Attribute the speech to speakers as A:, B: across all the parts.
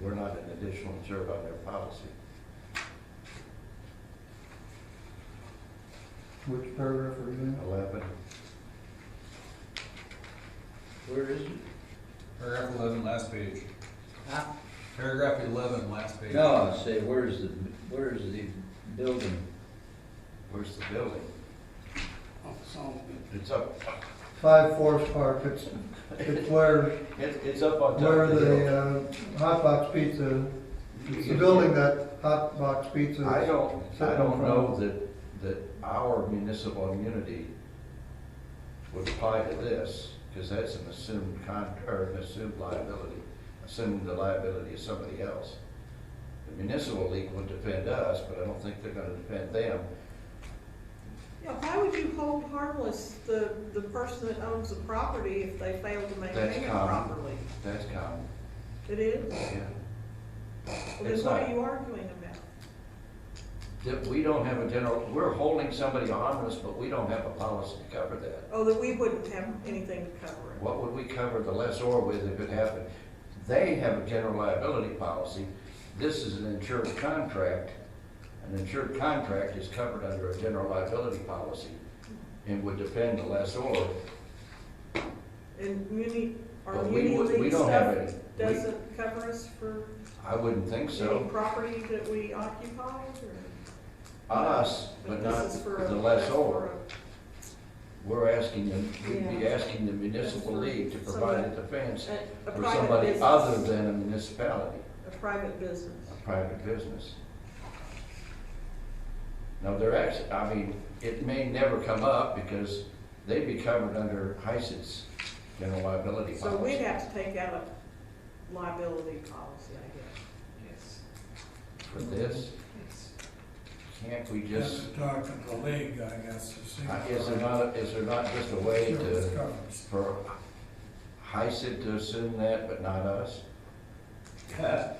A: We're not an additional observer on their policy.
B: Which paragraph are you in?
A: Eleven. Where is it?
C: Paragraph eleven, last page.
A: Ah.
C: Paragraph eleven, last page.
D: No, I say, where's the, where's the building?
A: Where's the building? Oh, It's up,
B: Five Forest Park, it's, it's where,
A: it's, it's up on top
B: where
A: of the
B: the,
A: hill.
B: uh, Hot Box Pizza, it's the building that Hot Box Pizza.
A: I don't, I don't
B: Sitting
A: know
B: from-
A: that, that our municipal immunity would apply to this, because that's an assumed con, or an assumed liability, assuming the liability is somebody else. The municipal league would defend us, but I don't think they're gonna defend them.
E: Yeah, why would you hold harmless the, the person that owns the property if they fail to
A: That's
E: maintain it
A: common.
E: properly?
A: That's common,
E: It is?
A: yeah.
E: Well,
A: It's
E: then what
A: not-
E: are you arguing about?
A: That we don't have a general, we're holding somebody harmless, but we don't have a policy to cover that.
E: Oh, that we wouldn't have anything to cover it.
A: What would we cover the lessor with if it happened? They have a general liability policy. This is an insured contract. An insured contract is covered under a general liability policy and would defend the lessor.
E: And muni, our
A: But we
E: muni
A: would- we
E: league
A: don't have
E: stuff
A: any. We-
E: doesn't cover us for
A: I wouldn't think
E: any
A: so.
E: property that we occupy or?
A: Us, but
E: this
A: not
E: is for a-
A: the
E: that's for
A: lessor. We're asking them, we'd be
E: Yeah.
A: asking the municipal
E: That's for
A: league to
E: somebody-
A: provide a defense
E: A a
A: for
E: private
A: somebody
E: business.
A: other than a municipality.
E: A private business.
A: a private business. Now, they're actually, I mean, it may never come up because they'd be covered under HISA's general liability
E: So we'd
A: policy
E: have to take out a liability policy, I guess.
F: Yes,
A: for this.
F: yes.
A: Can't we just,
G: Just talk to the league, I guess, to see.
A: I- is there not, is there not just a way
G: Sure, it's
A: to,
G: covered.
A: for HISA E to assume that, but not us?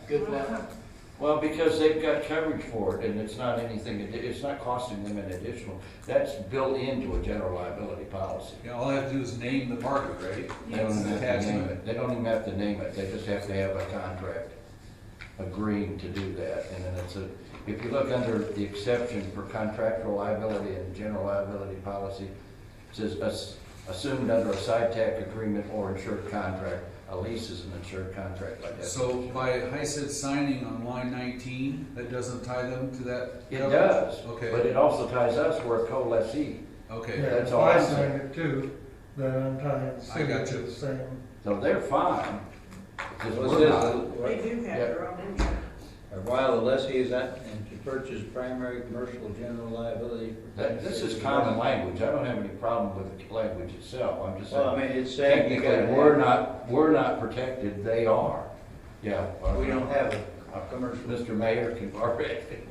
D: Good luck.
A: Well, because they've got coverage for it and it's not anything, addi- it's not costing them an additional, that's built into a general liability policy.
C: Yeah, all I have to do is name the party, right?
A: They don't even have
C: Attach
A: to name
C: it.
A: it, they don't even have to name it, they just have to have a contract agreeing to do that, and then it's a, if you look under the exception for contractual liability and general liability policy, it says, "As- assumed under a SITAC agreement or insured contract, a lease is an insured contract like that.
C: So by HICID signing on line nineteen, that doesn't tie them to that?
A: It
C: coverage?
A: does, but
C: Okay,
A: it also ties us, we're a co-lessee,
C: okay,
B: Yeah,
A: that's
B: if
A: all I'm
B: I
A: saying.
B: sang it too, then I'm tying the city
C: got
B: to
C: you.
B: the same.
A: so they're fine, because
D: Was
A: we're not.
E: They
D: this,
E: do have their own insurance.
D: or while the lessee is at, and to purchase primary commercial general liability. for-
A: That, this is common language, I don't have any problem with the language itself, I'm just saying.
D: Well, I mean, it's saying. you
A: Technically,
D: gotta
A: we're
D: have-
A: not, we're not protected, they are. Yeah.
D: We don't have a
A: Uh,
D: commercial.
A: Mr. Mayor can correct it.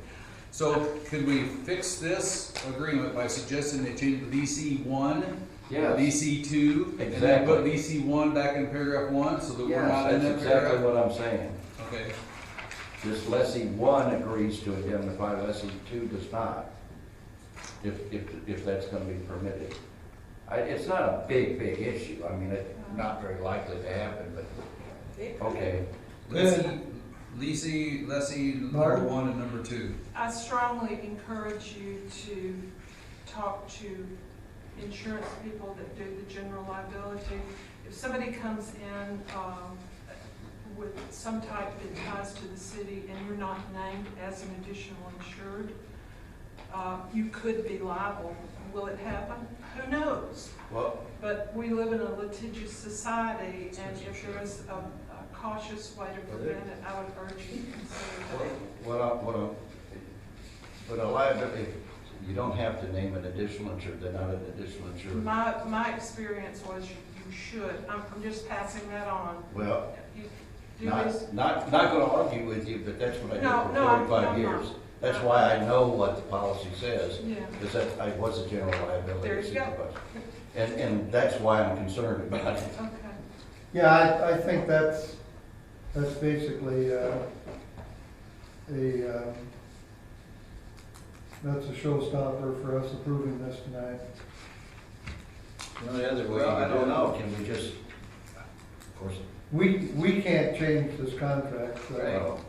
C: so could we fix this agreement by suggesting they change DC one? DC two? And then put
A: Exactly.
C: DC one back in paragraph one, so that we're not
A: Yes,
C: in that
A: that's exactly
C: paragraph?
A: what I'm saying.
C: Okay,
A: This lessee one agrees to indemnify, lessee two does not. If, if, if that's gonna be permitted. I, it's not a big, big issue, I mean, it's not very likely to happen, but,
E: It could.
A: okay.
C: Lessee, lessee, lessee number
B: Mark?
C: one and number two.
F: I strongly encourage you to talk to insurance people that do the general liability. If somebody comes in um, with some type that ties to the city and you're not named as an additional insured, uh, you could be liable. Will it happen? Who knows?
A: Well,
F: But we live in a litigious society, and if there is a a cautious way to prevent it, I would urge you to consider that.
A: What, I- what, I- but a liability, you don't have to name an additional insured, they're not an additional insured.
F: My, my experience was you you should, I'm I'm just passing that on.
A: Well,
F: You do this-
A: not, not, not gonna argue with you, but that's what I did
F: No,
A: for
F: no, I'm-
A: forty-five
F: I'm
A: years.
F: not.
A: That's why I know what the policy says,
F: Yeah,
A: because that, I was a general
F: There
A: liability
F: you go.
A: supervisor. And, and that's why I'm concerned about it.
F: okay.
B: Yeah, I, I think that's, that's basically, uh, a, um, that's a showstopper for us approving this tonight.
D: The only other way.
A: Well,
D: you
A: I
D: could
A: don't
D: do it-
A: know, can we just, of course,
B: we, we can't change this contract, so
A: Well,